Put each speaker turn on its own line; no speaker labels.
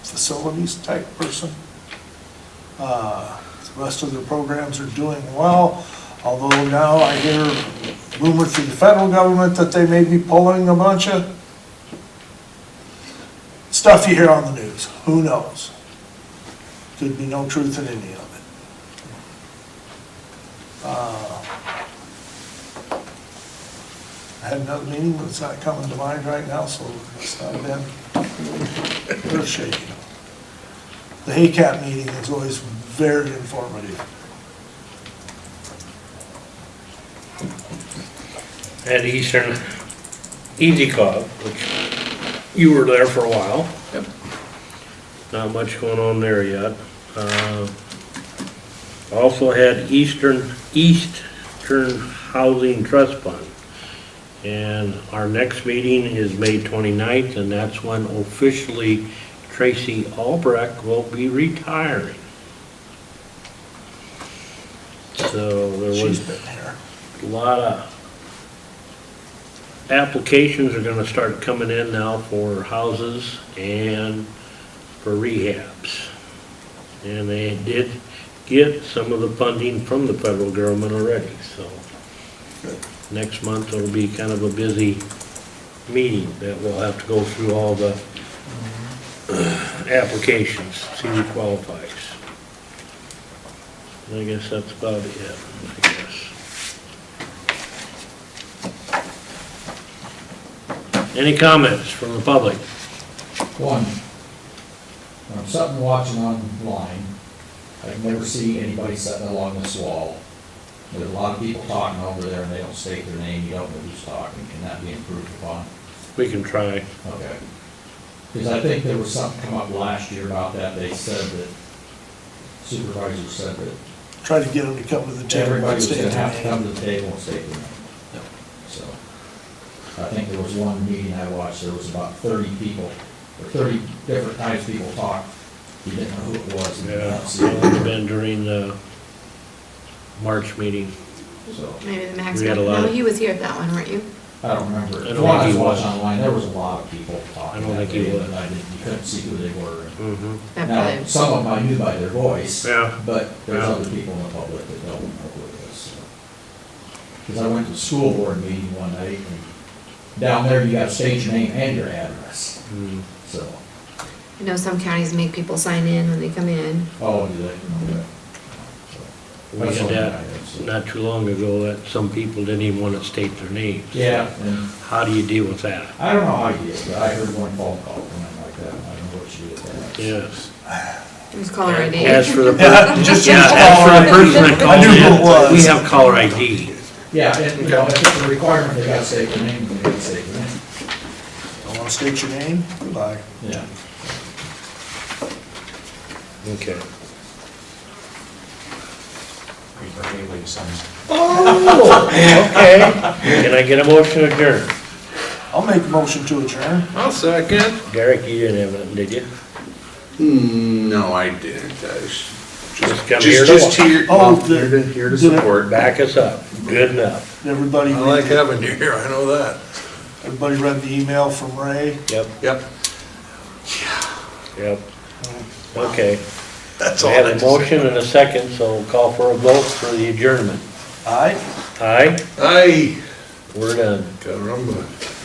facilities type person. Uh, The rest of their programs are doing well, although now I hear rumor through the federal government that they may be pulling a bunch of stuff you hear on the news, who knows? Could be no truth in any of it. Uh, I had another meeting, but it's not coming to mind right now, so it's not been earth shaking. The HACAP meeting is always very informative.
at Eastern Easy Cog, which you were there for a while.
Yep.
Not much going on there yet. Uh, Also had Eastern, Eastern Housing Trust Fund. And our next meeting is May 29th, and that's when officially Tracy Albrecht will be retiring. So there was
She's been here.
a lot of applications are gonna start coming in now for houses and for rehabs. And they did get some of the funding from the federal government already, so. Next month will be kind of a busy meeting that we'll have to go through all the applications, see who qualifies. And I guess that's about it, I guess. Any comments from the public?
One, when I'm sitting watching online, I've never seen anybody sitting along this wall. There's a lot of people talking over there and they don't state their name, you don't know who's talking, can that be improved upon?
We can try.
Okay. Because I think there was something come up last year about that, they said that supervisor said that
Try to get them to come to the table.
everybody
and
was
stay
gonna
at the
have
meeting.
to come to the table and state their name. So, I think there was one meeting I watched, there was about thirty people, or thirty different types of people talked. You didn't know who it was. and you didn't
Yeah,
see
it would have
it.
been during the March meeting.
So,
Maybe the max,
We had a
no,
lot.
you was here at that one, weren't you?
I don't remember.
don't
The one I
think
was
he
watching
was.
online, there was a lot of people talking.
I don't
that
think he
day,
was.
but I didn't, you couldn't see who they were.
Mm-hmm.
That
Now,
probably-
some of them I knew by their voice.
Yeah.
But there's
Yeah.
other people in the public that don't know who it is. Because I went to the school board meeting one night, and down there you gotta state your name and your address,
Mm-hmm.
so.
I know some counties make people sign in when they come in.
Oh, do they? Okay. So,
We
that's
had
all I
that
have, so.
not too long ago, that some people didn't even want to state their names.
Yeah, and
How do you deal with that?
I don't know how you did, but I heard one phone call from them like that, I don't know what you did that.
Yes.
It was caller ID.
As for the, per-
Yeah, just
yeah, as for the person that
I
calls
knew who it
in,
was.
we have caller ID.
Yeah, and, you know, if it's a requirement, they gotta say their name, they gotta say their name.
I want to state your name, goodbye.
Yeah.
Okay.
Oh,
Okay. Can I get a motion adjourned?
I'll make a motion to adjourn.
I'll second.
Derek, you didn't have nothing, did you?
Hmm, No, I didn't, I was
Just
just,
come
just,
here to
just
wa-
here,
Oh,
well, here to, here to
did it-
support.
Back us up, good enough.
Everybody,
I like
read-
having you here, I know that.
everybody read the email from Ray.
Yep,
Yep,
yep. Okay.
that's
We
all.
have
I
a
just-
motion and a second, so call for a vote for the adjournment.
Aye?
Aye,
Aye,
we're done.
caramba.